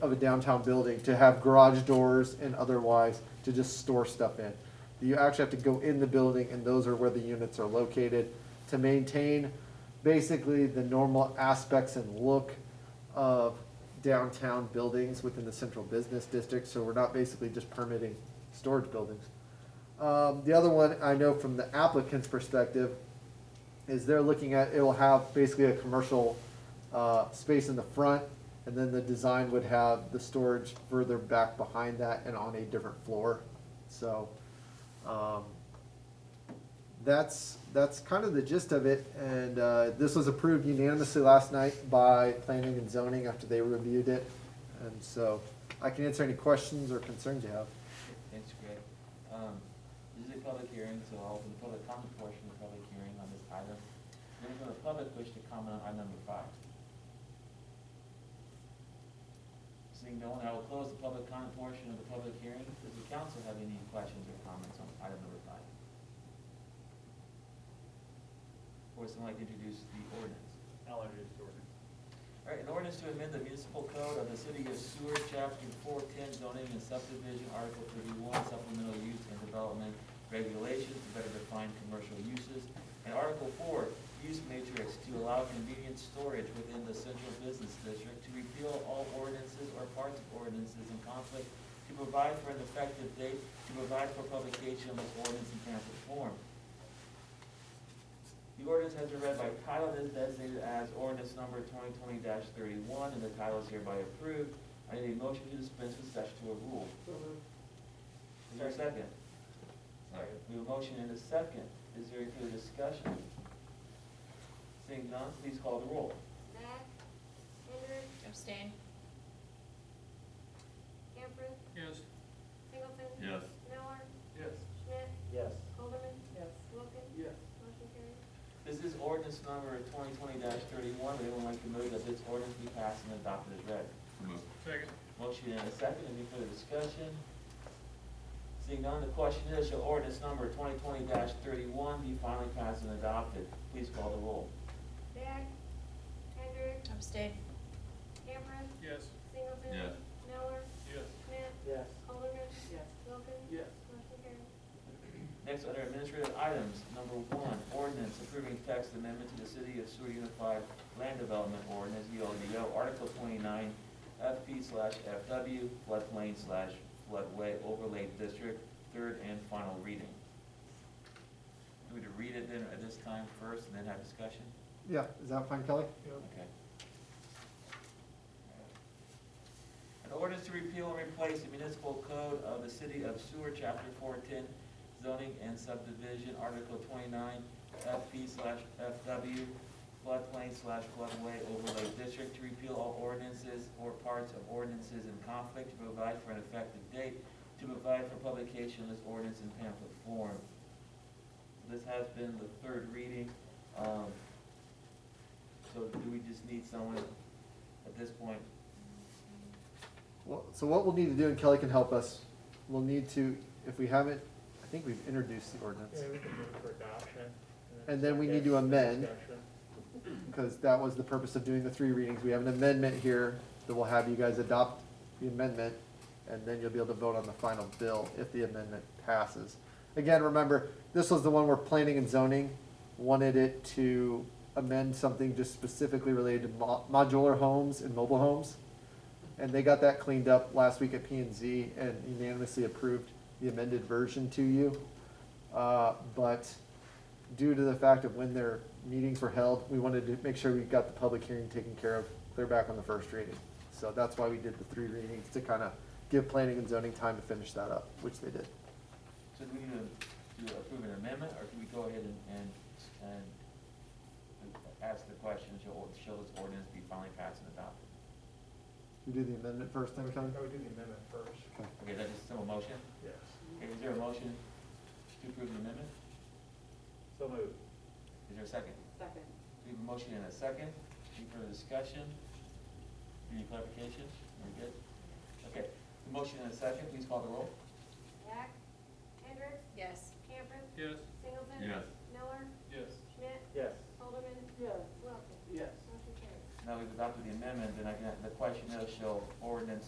of a downtown building to have garage doors and otherwise to just store stuff in. You actually have to go in the building and those are where the units are located to maintain basically the normal aspects and look of downtown buildings within the central business district, so we're not basically just permitting storage buildings. Um, the other one I know from the applicant's perspective is they're looking at, it'll have basically a commercial, uh, space in the front, and then the design would have the storage further back behind that and on a different floor, so, um, that's, that's kind of the gist of it, and, uh, this was approved unanimously last night by planning and zoning after they reviewed it, and so, I can answer any questions or concerns you have. Thanks, Greg. Um, this is a public hearing, so I'll open the public comment portion of the public hearing on this item. Does anyone from the public wish to comment on item number five? Seeing no one, I will close the public comment portion of the public hearing. Does the council have any questions or comments on item number five? Or would someone like to introduce the ordinance? I'll introduce the ordinance. All right, an ordinance to amend the municipal code of the city of Seward, chapter four ten zoning and subdivision, article thirty-one supplemental use and development regulations to better define commercial uses. And article four, use matrix to allow convenient storage within the central business district, to repeal all ordinances or parts of ordinances in conflict, to provide for an effective date, to provide for publication of this ordinance in pamphlet form, the ordinance has been read by title and is designated as ordinance number twenty twenty thirty-one, and the title is hereby approved. I need a motion to dispense with statutory rule. Is there a second? Sorry, we have a motion and a second. Is there any further discussion? Seeing none, please call the roll. Matt, Henry, Abstain. Camper, Yes. Singleton. Yes. Miller, Yes. Schmidt, Yes. Alderman. Yes. Wilkins. Yes. Motion carried. This is ordinance number twenty twenty thirty-one. Would anyone like to move that this ordinance be passed and adopted as read? Second. Motion and a second, any further discussion? Seeing none, the question is, shall ordinance number twenty twenty thirty-one be finally passed and adopted? Please call the roll. Beck, Hendrick, Abstain. Camper, Yes. Singleton. Yes. Miller, Yes. Schmidt, Yes. Alderman. Yes. Wilkins. Yes. Motion carried. Next, under administrative items, number one, ordinance approving text amendment to the City of Seward Unified Land Development Ordinance, E ULDO, Article twenty-nine, FP slash FW, floodplain slash floodway overlay district, third and final reading. Do we need to read it then at this time first and then have discussion? Yeah, is that fine, Kelly? Okay. An ordinance to repeal and replace the municipal code of the city of Seward, chapter four ten, zoning and subdivision, article twenty-nine, FP slash FW, floodplain slash floodway overlay district, to repeal all ordinances or parts of ordinances in conflict, to provide for an effective date, to provide for publication of this ordinance in pamphlet form. This has been the third reading. Um, so do we just need someone at this point? Well, so what we'll need to do, and Kelly can help us, we'll need to, if we haven't, I think we've introduced the ordinance. we can move for adoption. And then we need to amend. Discussion. Because that was the purpose of doing the three readings. We have an amendment here that will have you guys adopt the amendment, and then you'll be able to vote on the final bill if the amendment passes. Again, remember, this was the one where planning and zoning wanted it to amend something just specifically related to mo- modular homes and mobile homes. And they got that cleaned up last week at P and Z and unanimously approved the amended version to you. Uh, but due to the fact of when their meetings were held, we wanted to make sure we got the public hearing taken care of, clear back on the first reading. So that's why we did the three readings, to kind of give planning and zoning time to finish that up, which they did. So do we need to, to approve an amendment, or can we go ahead and, and, and ask the question, shall, shall this ordinance be finally passed and adopted? You do the amendment first, then, Kelly? I would Oh, do the amendment first. Okay. Okay, that's just a simple motion? Yes. Okay, is there a motion to approve the amendment? So moved. Is there a second? Second. We have a motion and a second. Any further discussion? Any clarification? We're good? Okay, the motion and a second, please call the roll. Beck, Hendrick, Yes. Camper, Yes. Singleton. Yes. Miller, Yes. Schmidt, Yes. Alderman. Yes. Wilkins. Yes. Motion carried. Now we've adopted the amendment, then I can, the question is, shall ordinance